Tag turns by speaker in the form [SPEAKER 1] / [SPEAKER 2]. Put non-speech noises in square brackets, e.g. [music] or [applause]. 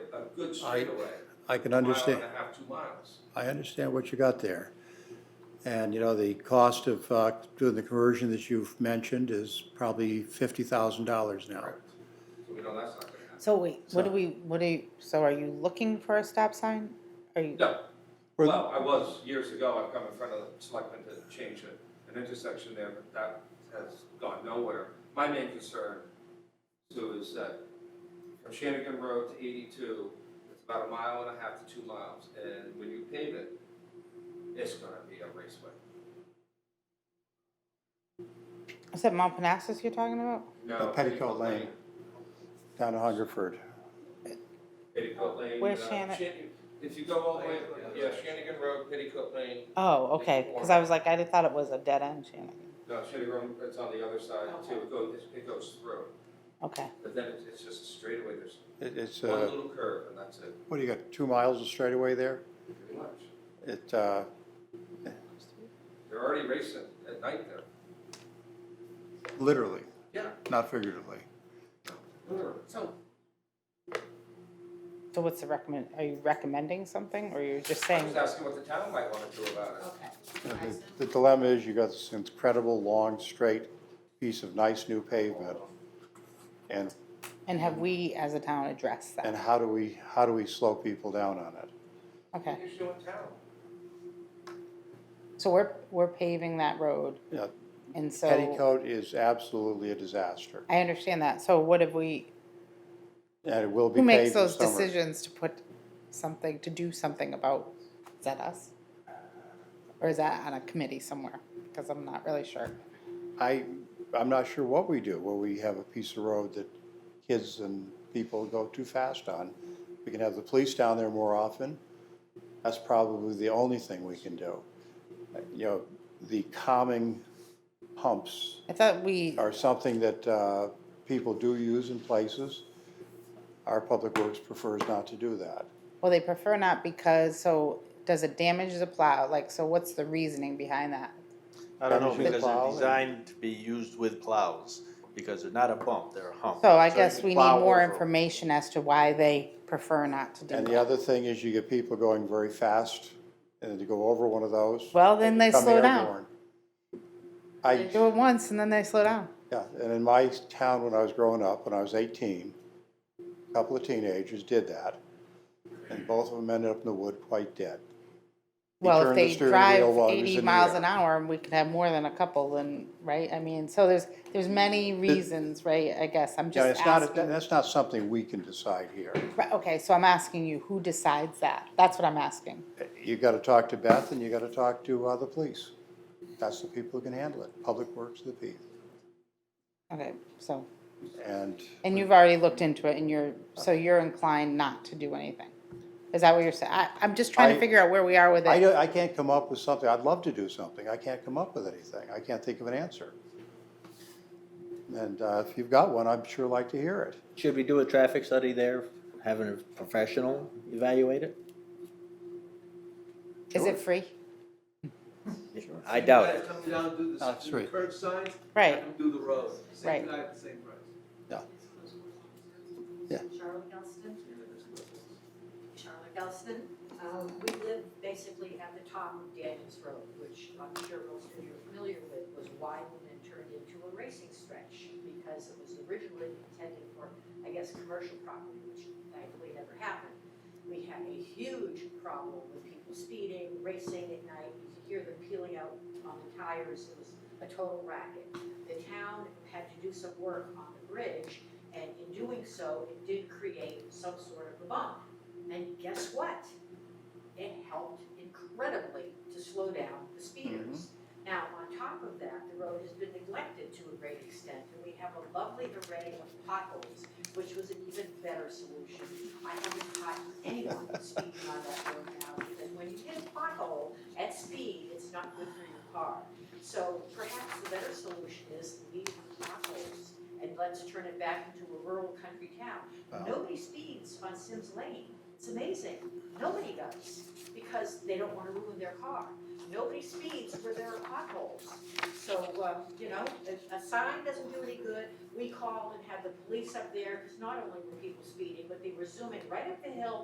[SPEAKER 1] good
[SPEAKER 2] I-
[SPEAKER 1] straightaway.
[SPEAKER 2] I can
[SPEAKER 1] Mile
[SPEAKER 2] understand,
[SPEAKER 1] and a half, two miles.
[SPEAKER 2] I understand what you got there. And, you know, the cost of uh, doing the conversion that you've mentioned is probably fifty thousand dollars now.
[SPEAKER 1] So we know that's not gonna happen.
[SPEAKER 3] So wait, what do
[SPEAKER 2] So-
[SPEAKER 3] we, what do you, so are you looking for a stop sign? Are you,
[SPEAKER 1] No,
[SPEAKER 2] Or-
[SPEAKER 1] well, I was years ago, I've come in front of the selectmen to change it, an intersection there, but that has gone nowhere. My main concern, too, is that from Shanigan Road to eighty-two, it's about a mile and a half to two miles, and when you pave it, it's gonna be a raceway.
[SPEAKER 3] is that Mount Parnassus you're talking about?
[SPEAKER 1] No,
[SPEAKER 2] Uh, Petticoat Lane. Down to Hungerford.
[SPEAKER 1] Petticoat Lane.
[SPEAKER 3] Where's
[SPEAKER 1] uh,
[SPEAKER 3] Shani-
[SPEAKER 1] Shan- If you go all the way, yeah, Shanigan Road, Petticoat Lane,
[SPEAKER 3] Oh, okay, because I was like, I thought it was a dead end, Shannon.
[SPEAKER 1] No, Shady Grove, it's on the other side too, it goes, it goes through,
[SPEAKER 3] Okay,
[SPEAKER 1] but then it's, it's just a straightaway, there's
[SPEAKER 2] It- It's,
[SPEAKER 1] one
[SPEAKER 2] uh,
[SPEAKER 1] little curve and that's it,
[SPEAKER 2] what do you got, two miles of straightaway there?
[SPEAKER 1] pretty much.
[SPEAKER 2] It, uh,
[SPEAKER 1] They're already racing at night there.
[SPEAKER 2] literally,
[SPEAKER 1] Yeah.
[SPEAKER 2] not figuratively.
[SPEAKER 1] Literally.
[SPEAKER 4] So,
[SPEAKER 3] so what's the recommend, are you recommending something, or you're just
[SPEAKER 1] I'm
[SPEAKER 3] saying?
[SPEAKER 1] just asking what the town might wanna do about it.
[SPEAKER 4] okay.
[SPEAKER 2] You know,
[SPEAKER 4] I
[SPEAKER 2] the-
[SPEAKER 4] said-
[SPEAKER 2] The dilemma is you got this incredible, long, straight piece of nice new pavement. And,
[SPEAKER 3] And have we, as a town, addressed
[SPEAKER 2] and
[SPEAKER 3] that?
[SPEAKER 2] how do we, how do we slow people down on it?
[SPEAKER 3] Okay,
[SPEAKER 1] You should do in town.
[SPEAKER 3] so we're, we're paving that road,
[SPEAKER 2] You know,
[SPEAKER 3] and so.
[SPEAKER 2] Petticoat is absolutely a disaster,
[SPEAKER 3] I understand that, so what have we,
[SPEAKER 2] and it will be
[SPEAKER 3] who makes
[SPEAKER 2] paved
[SPEAKER 3] those
[SPEAKER 2] this summer.
[SPEAKER 3] decisions to put something, to do something about, is that us? Or is that on a committee somewhere? Because I'm not really sure.
[SPEAKER 2] I, I'm not sure what we do, where we have a piece of road that kids and people go too fast on. We can have the police down there more often. That's probably the only thing we can do. You know, the calming pumps
[SPEAKER 3] I thought we,
[SPEAKER 2] are something that uh, people do use in places. Our Public Works prefers not to do that.
[SPEAKER 3] well, they prefer not because, so does it damage the plow? Like, so what's the reasoning behind that?
[SPEAKER 5] I don't know,
[SPEAKER 2] Damaging the
[SPEAKER 5] because
[SPEAKER 2] plow
[SPEAKER 5] they're
[SPEAKER 2] and-
[SPEAKER 5] designed to be used with plows, because they're not a bump, they're a hump.
[SPEAKER 3] So I
[SPEAKER 5] you
[SPEAKER 3] guess
[SPEAKER 5] can
[SPEAKER 3] we need
[SPEAKER 5] plow
[SPEAKER 3] more
[SPEAKER 5] over 'em.
[SPEAKER 3] information as to why they prefer not to do
[SPEAKER 2] And the
[SPEAKER 3] that.
[SPEAKER 2] other thing is you get people going very fast, and to go over one of those.
[SPEAKER 3] Well, then they
[SPEAKER 2] become
[SPEAKER 3] slow down.
[SPEAKER 2] airborne. I,
[SPEAKER 3] Do it once and then they slow down.
[SPEAKER 2] yeah, and in my town when I was growing up, when I was eighteen, a couple of teenagers did that, and both of them ended up in the wood quite dead. He
[SPEAKER 3] Well, if
[SPEAKER 2] turned the
[SPEAKER 3] they
[SPEAKER 2] steering
[SPEAKER 3] drive
[SPEAKER 2] wheel while he was
[SPEAKER 3] eighty
[SPEAKER 2] in the
[SPEAKER 3] miles
[SPEAKER 2] air.
[SPEAKER 3] an hour, we could have more than a couple then, right? I mean, so there's, there's many reasons, right? I guess, I'm
[SPEAKER 2] Yeah,
[SPEAKER 3] just
[SPEAKER 2] it's not,
[SPEAKER 3] asking.
[SPEAKER 2] that's not something we can decide here.
[SPEAKER 3] Right, Okay, so I'm asking you, who decides that? That's what I'm asking.
[SPEAKER 2] you gotta talk to Beth and you gotta talk to, uh, the police. That's the people who can handle it, Public Works, the P.
[SPEAKER 3] Okay, so,
[SPEAKER 2] And
[SPEAKER 3] and you've already looked into it and you're, so you're inclined not to do anything? Is that what you're saying? I, I'm just trying to
[SPEAKER 2] I-
[SPEAKER 3] figure out where we are with
[SPEAKER 2] I,
[SPEAKER 3] it.
[SPEAKER 2] don't- I can't come up with something, I'd love to do something, I can't come up with anything, I can't think of an answer. And, uh, if you've got one, I'd sure like to hear it.
[SPEAKER 6] Should we do a traffic study there, having a professional evaluate it?
[SPEAKER 3] Is it free?
[SPEAKER 6] I doubt it.
[SPEAKER 7] Guys come down and do
[SPEAKER 2] That's
[SPEAKER 7] the, do the
[SPEAKER 2] right.
[SPEAKER 7] curb signs,
[SPEAKER 3] Right.
[SPEAKER 7] have them do the road,
[SPEAKER 3] Right.
[SPEAKER 7] same guy, same price.
[SPEAKER 2] Yeah.
[SPEAKER 4] Charlotte Galston. Charlotte Galston. Um, we live basically at the top of Daniels Road, which I'm sure most of you are familiar with, was widened and turned into a racing stretch because it was originally intended for, I guess, commercial property, which thankfully never happened. We had a huge problem with people speeding, racing at night, you could hear them peeling out on the tires, it was a total racket. The town had to do some work on the bridge and in doing so, it did create some sort of a bump. And guess what? It helped incredibly to slow down the speeders. Now, on top of that, the road has been neglected to a great extent, and we have a lovely array of potholes, which was an even better solution. I haven't caught anyone [laughs] speeding on that road now, because when you hit a pothole at speed, it's not good for your car. So perhaps the better solution is leave the potholes and let's turn it back into a rural country town.
[SPEAKER 2] Wow.
[SPEAKER 4] Nobody speeds on Sims Lane. It's amazing. Nobody does because they don't want to ruin their car. Nobody speeds where there are potholes. So, uh, you know, a, a sign doesn't do any good. We call and have the police up there because not only were people speeding, but they were zooming right up the hill